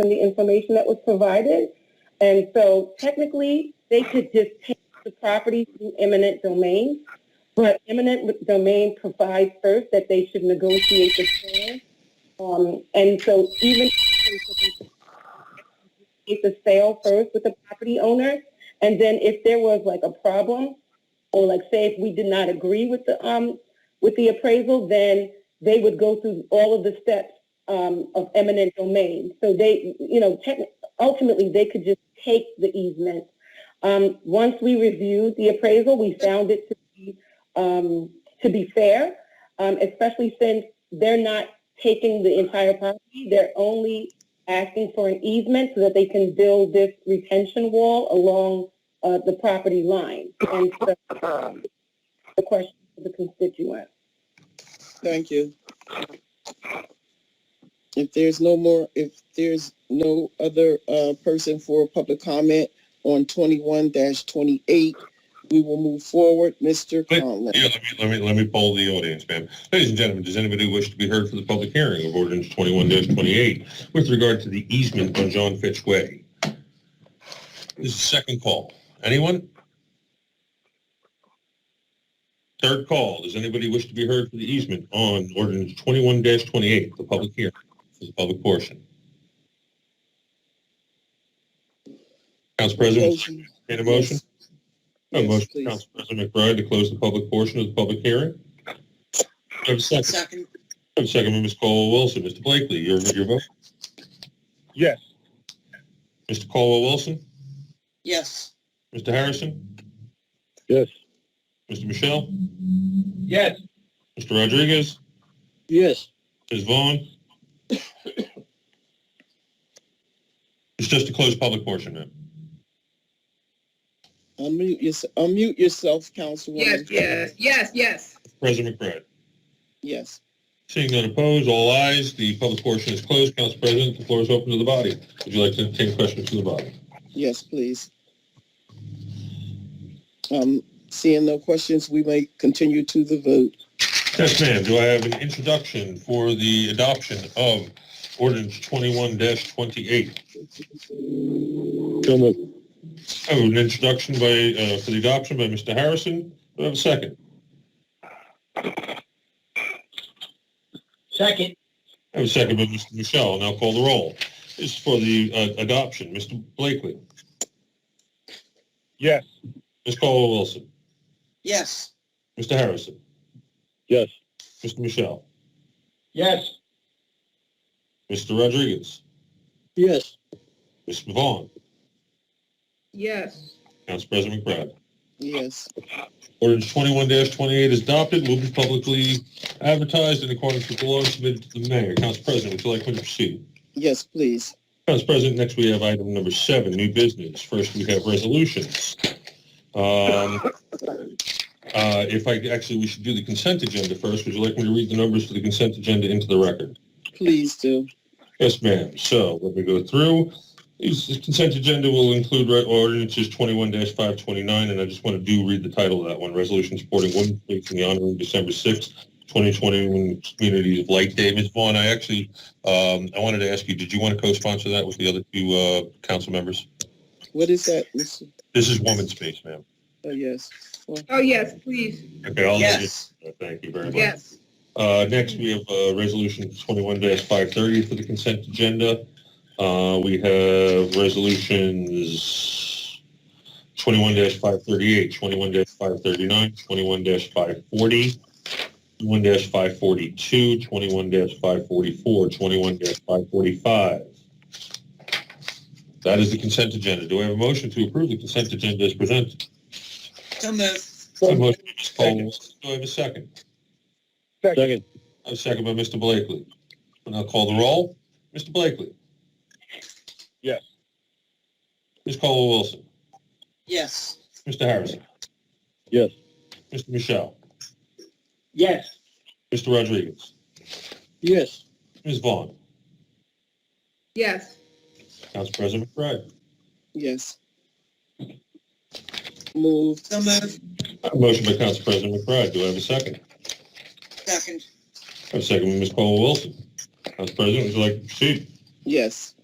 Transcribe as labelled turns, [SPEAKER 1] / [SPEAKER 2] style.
[SPEAKER 1] from the information that was provided. And so technically, they could just take the property through eminent domain, but eminent domain provides first that they should negotiate the plan. Um, and so even if the sale first with the property owner, and then if there was like a problem, or like say if we did not agree with the um with the appraisal, then they would go through all of the steps um, of eminent domain. So they, you know, techni- ultimately they could just take the easement. Um, once we reviewed the appraisal, we found it to be um, to be fair, um, especially since they're not taking the entire property. They're only asking for an easement so that they can build this retention wall along uh, the property line. And so the question to the constituent.
[SPEAKER 2] Thank you. If there's no more, if there's no other uh, person for public comment on twenty-one twenty-eight, we will move forward. Mr.
[SPEAKER 3] Wait.
[SPEAKER 2] Conlon.
[SPEAKER 3] Yeah, let me, let me, let me poll the audience, ma'am. Ladies and gentlemen, does anybody wish to be heard for the public hearing of ordinance twenty-one twenty-eight with regard to the easement on John Fitch Way? This is second call. Anyone? Third call. Does anybody wish to be heard for the easement on ordinance twenty-one twenty-eight, the public hearing, for the public portion? Council President,
[SPEAKER 2] Motion.
[SPEAKER 3] entertain a motion? A
[SPEAKER 2] Yes,
[SPEAKER 3] motion,
[SPEAKER 2] please.
[SPEAKER 3] Council President McBride, to close the public portion of the public hearing. Do I have a second?
[SPEAKER 2] Second.
[SPEAKER 3] I have a second by Ms. Caldwell Wilson. Mr. Blakely, your, your vote?
[SPEAKER 4] Yes.
[SPEAKER 3] Mr. Caldwell Wilson?
[SPEAKER 2] Yes.
[SPEAKER 3] Mr. Harrison?
[SPEAKER 4] Yes.
[SPEAKER 3] Mr. Michelle?
[SPEAKER 4] Yes.
[SPEAKER 3] Mr. Rodriguez?
[SPEAKER 4] Yes.
[SPEAKER 3] Ms. Vaughn? It's just to close public portion, ma'am.
[SPEAKER 2] Unmute yourself, unmute yourself, Councilwoman.
[SPEAKER 5] yes, yes, yes.
[SPEAKER 3] President McBride?
[SPEAKER 2] Yes.
[SPEAKER 3] Seeing none opposed, all ayes, the public portion is closed. Council President, the floor is open to the body. Would you like to entertain questions from the body?
[SPEAKER 2] Yes, please. Um, seeing no questions, we may continue to the vote.
[SPEAKER 3] Yes, ma'am. Do I have an introduction for the adoption of ordinance twenty-one twenty-eight?
[SPEAKER 4] So moved.
[SPEAKER 3] I have Oh, an introduction by, uh, for the adoption by Mr. Harrison. Do I have a second?
[SPEAKER 4] Second.
[SPEAKER 3] I have a second by Mr. Michelle. Now call the roll. This is for the, uh, adoption. Mr. Blakely,
[SPEAKER 4] Yes.
[SPEAKER 3] Ms. Caldwell Wilson,
[SPEAKER 2] Yes.
[SPEAKER 3] Mr. Harrison,
[SPEAKER 4] Yes.
[SPEAKER 3] Mr. Michelle,
[SPEAKER 4] Yes.
[SPEAKER 3] Mr. Rodriguez,
[SPEAKER 4] Yes.
[SPEAKER 3] Ms. Vaughn,
[SPEAKER 5] Yes,
[SPEAKER 3] Council President McBride.
[SPEAKER 2] Yes.
[SPEAKER 3] Ordinance twenty-one twenty-eight is adopted, will be publicly advertised in accordance with the law and submitted to the mayor. Council President, would you like me to proceed?
[SPEAKER 2] Yes, please.
[SPEAKER 3] Council President, next we have item number seven, new business. First, we have resolutions. Um, uh, If I, actually, we should do the consent agenda first. Would you like me to read the numbers for the consent agenda into the record?
[SPEAKER 2] Please do.
[SPEAKER 3] Yes, ma'am. So let me go through. This this consent agenda will include re- ordinances 21-529, and I just want to do read the title of that one, Resolution Supporting Women's Week in the Honor of December 6th, 2021 Communities of Light Day. Ms. Vaughn, I actually, um, I wanted to ask you, did you want to co-sponsor that with the other two uh, council members?
[SPEAKER 2] What is that, Mr.?
[SPEAKER 3] This is Woman's Space, ma'am.
[SPEAKER 2] Oh, yes.
[SPEAKER 5] oh, yes, please,
[SPEAKER 3] Okay, I'll let you- Thank you very much.
[SPEAKER 5] yes.
[SPEAKER 3] Uh, next, we have, uh, resolution twenty-one five thirty for the consent agenda. Uh, we have resolutions twenty-one 538 21 five thirty-nine, twenty-one 540 five forty, one 542 21 five forty-four, twenty-one five forty-five. That is the consent agenda. Do I have a motion to approve the consent agenda as presented?
[SPEAKER 2] So moved.
[SPEAKER 3] A motion by Ms. Cole. Do I have a second?
[SPEAKER 4] Second.
[SPEAKER 3] A second by Mr. Blakely. And I'll call the roll. Mr. Blakely?
[SPEAKER 4] Yes.
[SPEAKER 3] Ms. Caldwell Wilson?
[SPEAKER 2] Yes.
[SPEAKER 3] Mr. Harrison?
[SPEAKER 4] Yes.
[SPEAKER 3] Mr. Michelle?
[SPEAKER 4] Yes.
[SPEAKER 3] Mr. Rodriguez?
[SPEAKER 4] Yes.
[SPEAKER 3] Ms. Vaughn?
[SPEAKER 5] Yes,
[SPEAKER 3] Council President McBride?
[SPEAKER 2] Yes. Moved.
[SPEAKER 6] So moved.
[SPEAKER 3] I have a Motion by Council President McBride. Do I have a second?
[SPEAKER 6] Second.
[SPEAKER 3] I have a second by Ms. Caldwell Wilson. Council President, would you like to proceed?
[SPEAKER 2] Yes.